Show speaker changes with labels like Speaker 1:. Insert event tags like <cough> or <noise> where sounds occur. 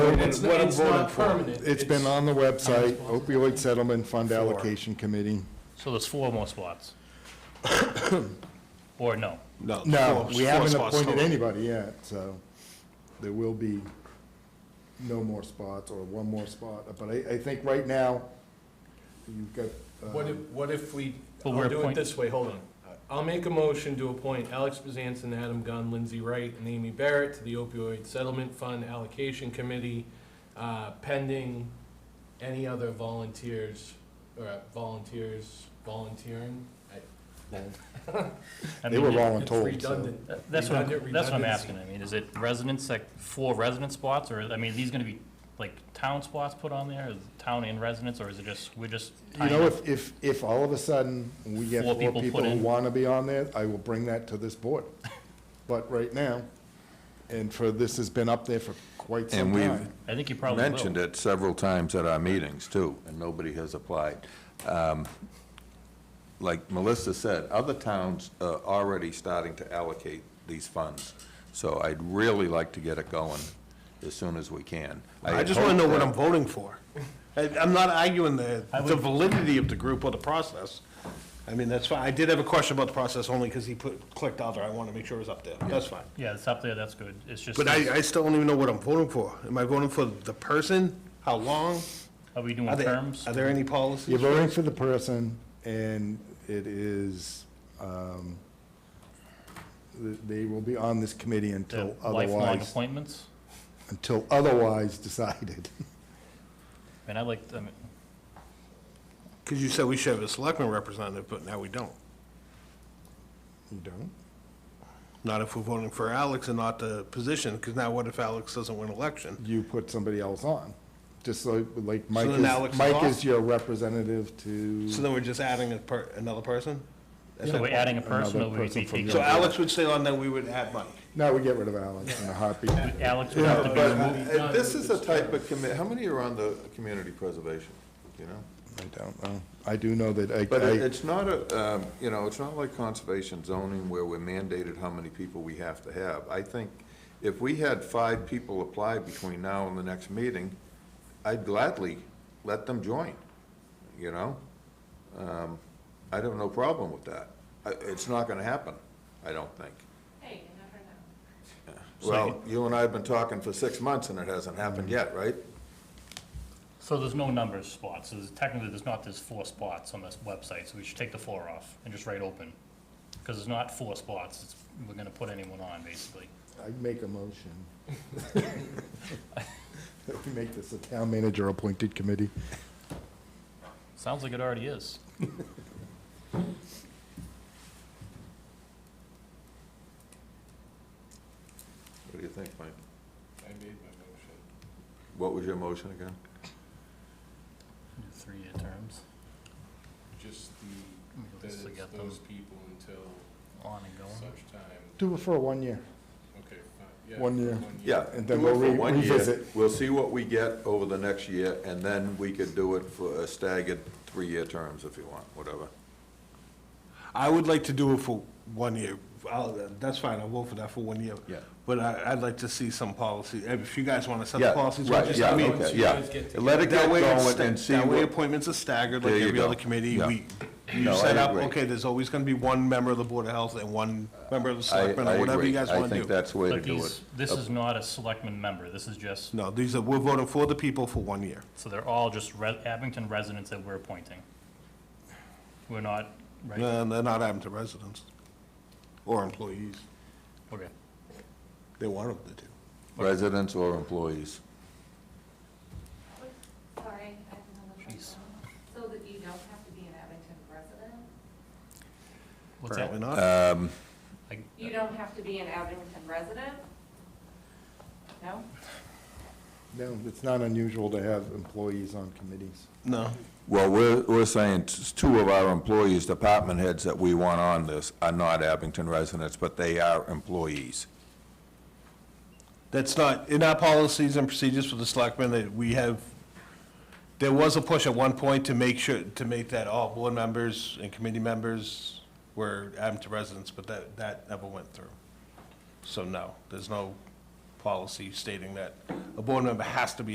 Speaker 1: I'm-
Speaker 2: It's-
Speaker 1: what I'm
Speaker 2: it's not
Speaker 1: voting for.
Speaker 2: permanent.
Speaker 1: It's been on the website, opioid settlement fund
Speaker 2: Four.
Speaker 1: allocation committee.
Speaker 3: So there's four more spots? <coughs> Or no?
Speaker 4: No.
Speaker 1: No,
Speaker 4: four-
Speaker 1: we
Speaker 4: four
Speaker 1: haven't
Speaker 4: spots
Speaker 1: appointed
Speaker 4: total.
Speaker 1: anybody yet, so there will be no more spots or one more spot. But I, I think right now, you've got,
Speaker 2: What if,
Speaker 1: uh,
Speaker 2: what if we,
Speaker 3: But we're
Speaker 2: I'll do it
Speaker 3: appoint-
Speaker 2: this way, hold on. I'll make a motion to appoint Alex Bezanson, Adam Gunn, Lindsay Wright, and Amy Barrett to the opioid settlement fund allocation committee, uh, pending any other volunteers, or uh, volunteers volunteering.
Speaker 3: I
Speaker 1: they
Speaker 3: mean,
Speaker 1: were
Speaker 3: you-
Speaker 1: wrong and
Speaker 2: It's
Speaker 1: told, so.
Speaker 2: redundant.
Speaker 3: that- That's what, I'm-
Speaker 2: Redundant-
Speaker 3: that's what I'm
Speaker 2: redundancy.
Speaker 3: asking, I mean, is it residents, like, four resident spots, or, I mean, are these gonna be, like, town spots put on there, Is it town and residents, or is it just, we're just
Speaker 1: You
Speaker 3: tying
Speaker 1: know,
Speaker 3: up?
Speaker 1: if, if, if all of a sudden we get
Speaker 3: Four
Speaker 1: four
Speaker 3: people put
Speaker 1: people who
Speaker 3: in.
Speaker 1: want to be on there, I will bring that to this
Speaker 3: <laughs>
Speaker 1: board. But right now, and for, this has been up there for quite some
Speaker 4: And we've-
Speaker 1: time.
Speaker 3: I think you probably
Speaker 4: Mentioned
Speaker 3: will.
Speaker 4: it several times at our meetings, too, and nobody has applied. Um, Like Melissa said, other towns are already starting to allocate these funds, so I'd really like to get it going as soon as we can.
Speaker 5: I just want to
Speaker 4: hope
Speaker 5: know what
Speaker 4: that-
Speaker 5: I'm voting for. I- I'm not arguing the,
Speaker 3: I
Speaker 5: the
Speaker 3: would-
Speaker 5: validity of the group or the process. I mean, that's fine. I did have a question about the process only because he put, clicked other. I want to make sure it was up there. That's fine.
Speaker 3: Yeah, it's up there, that's good, it's just,
Speaker 5: But I, I still don't even know what I'm voting for. Am I voting for the person? How long?
Speaker 3: are we doing
Speaker 5: Are there,
Speaker 3: terms?
Speaker 5: are there any
Speaker 1: You're
Speaker 5: policies?
Speaker 1: voting for the person, and it is, um, th- they will be on this committee
Speaker 3: The
Speaker 1: until
Speaker 3: Lifelong
Speaker 1: otherwise,
Speaker 3: appointments?
Speaker 1: until otherwise decided. <laughs>
Speaker 3: And I like, I mean,
Speaker 5: Because you said we should have a selectman representative, but now we don't.
Speaker 1: You don't?
Speaker 5: Not if we're voting for Alex and not the position, because now what if Alex doesn't win election?
Speaker 1: You put somebody else on, just so, like, Mike
Speaker 5: then Alex
Speaker 1: is,
Speaker 5: is
Speaker 1: Mike
Speaker 5: off?
Speaker 1: is your representative
Speaker 5: So
Speaker 1: to,
Speaker 5: then we're just adding a per, another person?
Speaker 3: so we're adding a person,
Speaker 1: Another
Speaker 3: or we
Speaker 1: person
Speaker 3: be
Speaker 1: from
Speaker 3: taking?
Speaker 5: So Alex would stay on, then we would add Mike.
Speaker 1: no, we get rid of Alex in a heartbeat.
Speaker 3: Alex would have to
Speaker 4: Yeah,
Speaker 3: be
Speaker 4: but
Speaker 3: removed?
Speaker 4: uh, this is a type of commi, how many are on the community preservation, you know?
Speaker 1: I don't know. I do know that I-
Speaker 4: But it-
Speaker 1: I,
Speaker 4: it's not a, um, you know, it's not like conservation zoning where we're mandated how many people we have to have. I think if we had five people apply between now and the next meeting, I'd gladly let them join, you know? Um, I'd have no problem with that. I- It's not gonna happen, I don't think.
Speaker 6: Hey, you never know.
Speaker 4: Well, you and I have been talking for six months and it hasn't happened yet, right?
Speaker 3: So there's no numbers spots, so there's- technically there's not, there's four spots on this website, so we should take the four off and just write open. Because it's not four spots, it's, we're gonna put anyone on, basically.
Speaker 1: I make a motion. <laughs> That we make this a town manager appointed committee.
Speaker 3: Sounds like it already is.
Speaker 4: What do you think, Mike?
Speaker 2: I made my motion.
Speaker 4: What was your motion again?
Speaker 3: Three-year terms,
Speaker 2: Just
Speaker 3: Let me
Speaker 2: the,
Speaker 3: just
Speaker 2: that it's
Speaker 3: get them.
Speaker 2: those people until
Speaker 3: on and going.
Speaker 2: such time,
Speaker 1: Do it for one year.
Speaker 2: okay, fine, yeah.
Speaker 1: One year.
Speaker 4: Yeah.
Speaker 1: And then
Speaker 4: do it
Speaker 1: we'll
Speaker 4: for
Speaker 1: re-
Speaker 4: one year.
Speaker 1: revisit.
Speaker 4: We'll see what we get over the next year, and then we could do it for a staggered three-year terms if you want, whatever.
Speaker 5: I would like to do it for one year. I'll, that's fine, I'll vote for that for one year.
Speaker 4: Yeah.
Speaker 5: But I, I'd like to see some policy, if you guys want to set
Speaker 4: Yeah,
Speaker 5: the policies, we'll
Speaker 4: right,
Speaker 5: just,
Speaker 4: yeah,
Speaker 5: I mean,
Speaker 4: okay,
Speaker 2: you
Speaker 4: yeah.
Speaker 2: guys get
Speaker 4: Let it get
Speaker 5: that way, it's-
Speaker 4: going and see
Speaker 5: that way
Speaker 4: what,
Speaker 5: appointments are staggered like
Speaker 4: There you
Speaker 5: every other
Speaker 4: go.
Speaker 5: committee.
Speaker 4: Yeah.
Speaker 5: We,
Speaker 4: No,
Speaker 5: you
Speaker 4: I
Speaker 5: set up,
Speaker 4: agree.
Speaker 5: okay, there's always going to be one member of the Board of Health and one member of the
Speaker 4: I, I
Speaker 5: Selectmen, or whatever you
Speaker 4: agree.
Speaker 5: guys
Speaker 4: I
Speaker 5: want to
Speaker 4: think
Speaker 5: do.
Speaker 4: that's the way to
Speaker 3: But
Speaker 4: do it.
Speaker 3: these, this is not a selectman member, this is just,
Speaker 5: No, these are, we're voting for the people for one year.
Speaker 3: so they're all just re- Abington residents that we're appointing. We're not, right,
Speaker 5: And they're not having to residents or employees.
Speaker 3: okay.
Speaker 5: They want them to do.
Speaker 4: Residents or employees.
Speaker 6: Sorry, I have another
Speaker 3: Jeez.
Speaker 6: question. So that you don't have to be an Abington resident?
Speaker 3: What's that?
Speaker 5: Apparently not.
Speaker 4: Uh,
Speaker 3: I-
Speaker 6: You don't have to be an Abington resident? No?
Speaker 1: No, it's not unusual to have employees on committees.
Speaker 5: No.
Speaker 4: Well, we're, we're saying t- two of our employees, department heads that we want on this are not Abington residents, but they are employees.
Speaker 5: That's not, in our policies and procedures for the selectmen, that we have, there was a push at one point to make sure, to make that all board members and committee members were Abington residents, but that, that never went through. So no, there's no policy stating that a board member has to be